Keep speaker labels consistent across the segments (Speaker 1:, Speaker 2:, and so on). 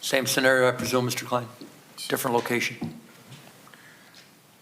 Speaker 1: Same scenario, I presume, Mr. Klein? Different location?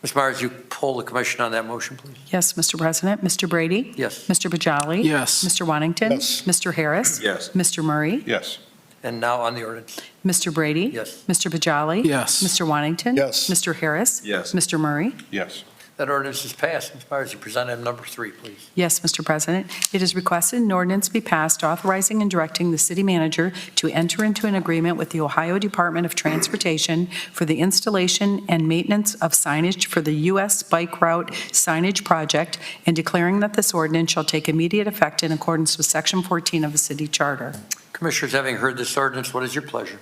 Speaker 1: Ms. Myers, you poll the commission on that motion, please?
Speaker 2: Yes, Mr. President. Mr. Brady?
Speaker 1: Yes.
Speaker 2: Mr. Bajali?
Speaker 3: Yes.
Speaker 2: Mr. Wantington?
Speaker 4: Yes.
Speaker 2: Mr. Harris?
Speaker 4: Yes.
Speaker 2: Mr. Murray?
Speaker 4: Yes.
Speaker 1: And now on the ordinance?
Speaker 2: Mr. Brady?
Speaker 1: Yes.
Speaker 2: Mr. Bajali?
Speaker 3: Yes.
Speaker 2: Mr. Wantington?
Speaker 4: Yes.
Speaker 2: Mr. Harris?
Speaker 4: Yes.
Speaker 2: Mr. Murray?
Speaker 4: Yes.
Speaker 1: That ordinance is passed. Ms. Myers, you present item number three, please.
Speaker 2: Yes, Mr. President. It is requested an ordinance be passed authorizing and directing the city manager to enter into an agreement with the Ohio Department of Transportation for the installation and maintenance of signage for the U.S. Bike Route Signage Project and declaring that this ordinance shall take immediate effect in accordance with Section 14 of the city charter.
Speaker 1: Commissioners, having heard this ordinance, what is your pleasure?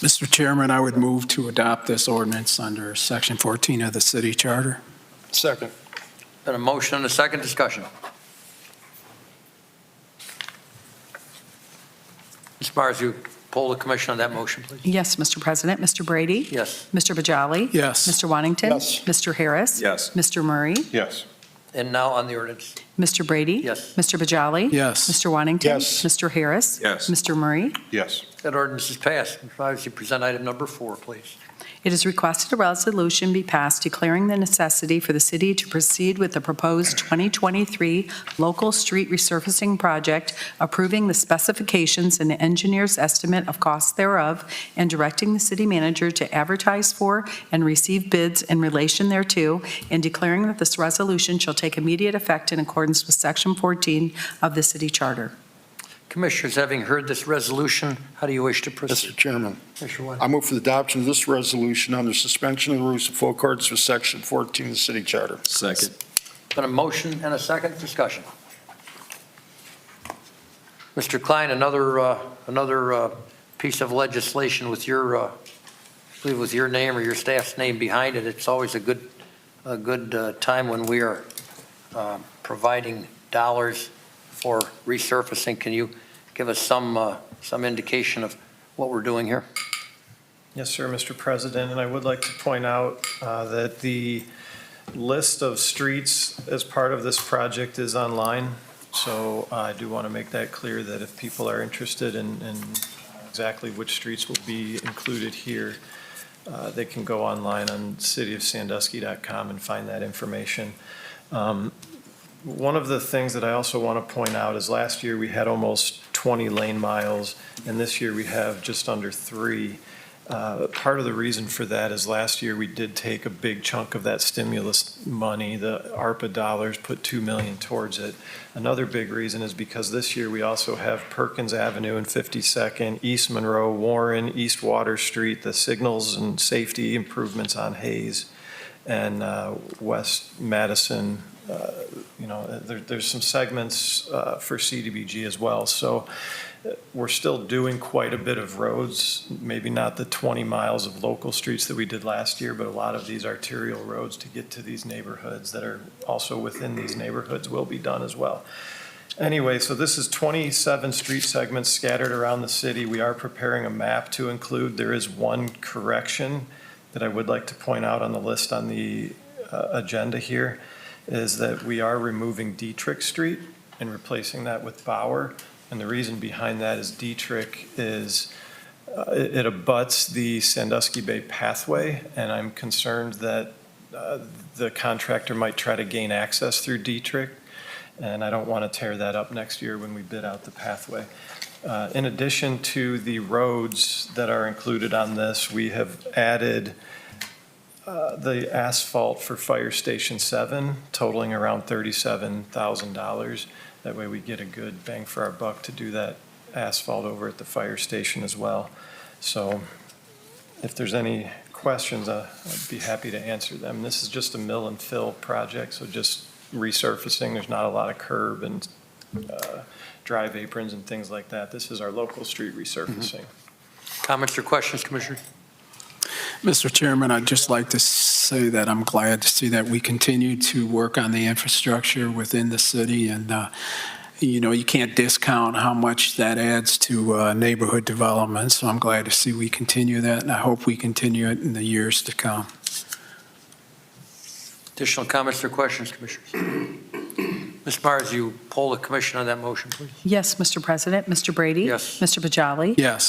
Speaker 3: Mr. Chairman, I would move to adopt this ordinance under Section 14 of the city charter.
Speaker 4: Second.
Speaker 1: Been a motion and a second discussion. Ms. Myers, you poll the commission on that motion, please?
Speaker 2: Yes, Mr. President. Mr. Brady?
Speaker 1: Yes.
Speaker 2: Mr. Bajali?
Speaker 3: Yes.
Speaker 2: Mr. Wantington?
Speaker 4: Yes.
Speaker 2: Mr. Harris?
Speaker 4: Yes.
Speaker 2: Mr. Murray?
Speaker 4: Yes.
Speaker 1: And now on the ordinance?
Speaker 2: Mr. Brady?
Speaker 1: Yes.
Speaker 2: Mr. Bajali?
Speaker 3: Yes.
Speaker 2: Mr. Wantington?
Speaker 4: Yes.
Speaker 2: Mr. Harris?
Speaker 4: Yes.
Speaker 2: Mr. Murray?
Speaker 4: Yes.
Speaker 1: That ordinance is passed. Ms. Myers, you present item number four, please.
Speaker 2: It is requested a resolution be passed declaring the necessity for the city to proceed with the proposed 2023 local street resurfacing project, approving the specifications and the engineer's estimate of costs thereof, and directing the city manager to advertise for and receive bids in relation thereto, and declaring that this resolution shall take immediate effect in accordance with Section 14 of the city charter.
Speaker 1: Commissioners, having heard this resolution, how do you wish to
Speaker 5: Mr.
Speaker 1: proceed?
Speaker 5: Chairman,
Speaker 1: Commissioner Wendell.
Speaker 5: I move for the adoption of this resolution under suspension of the rules in full accordance with Section 14 of the City Charter.
Speaker 4: Second.
Speaker 1: Been a motion and a second discussion. Mr. Klein, another, uh, another uh, piece of legislation with your, uh, I believe with your name or your staff's name behind it, it's always a good, a good uh, time when we are um, providing dollars for resurfacing. Can you give us some, uh, some indication of what we're doing here?
Speaker 6: Yes, sir, Mr. President, and I would like to point out uh, that the list of streets as part of this project is online, so I do want to make that clear that if people are interested in in exactly which streets will be included here, uh, they can go online on cityofsandusky.com and find that information. Um, One of the things that I also want to point out is last year, we had almost 20 lane miles, and this year, we have just under three. Uh, Part of the reason for that is last year, we did take a big chunk of that stimulus money, the ARPA dollars, put 2 million towards it. Another big reason is because this year, we also have Perkins Avenue and 52nd, East Monroe, Warren, East Water Street, the signals and safety improvements on Hayes, and uh, West Madison. Uh, You know, there- there's some segments uh, for CDBG as well. So uh, we're still doing quite a bit of roads, maybe not the 20 miles of local streets that we did last year, but a lot of these arterial roads to get to these neighborhoods that are also within these neighborhoods will be done as well. Anyway, so this is 27 street segments scattered around the city. We are preparing a map to include. There is one correction that I would like to point out on the list on the uh, agenda here is that we are removing Dietrich Street and replacing that with Bauer. And the reason behind that is Dietrich is, uh, it it abuts the Sandusky Bay pathway, and I'm concerned that uh, the contractor might try to gain access through Dietrich, and I don't want to tear that up next year when we bid out the pathway. Uh, In addition to the roads that are included on this, we have added uh, the asphalt for Fire Station 7 totaling around $37,000. That way we get a good bang for our buck to do that asphalt over at the fire station as well. So if there's any questions, uh, I'd be happy to answer them. This is just a mill and fill project, so just resurfacing. There's not a lot of curb and uh, drive aprons and things like that. This is our local street resurfacing.
Speaker 1: Comments or questions, Commissioner?
Speaker 3: Mr. Chairman, I'd just like to say that I'm glad to see that we continue to work on the infrastructure within the city. And, uh, you know, you can't discount how much that adds to uh, neighborhood development. So I'm glad to see we continue that, and I hope we continue it in the years to come.
Speaker 1: Additional comments or questions, Commissioners? Ms. Myers, you poll the commission on that motion, please.
Speaker 2: Yes, Mr. President. Mr. Brady?
Speaker 1: Yes.
Speaker 2: Mr. Bajali?
Speaker 3: Yes.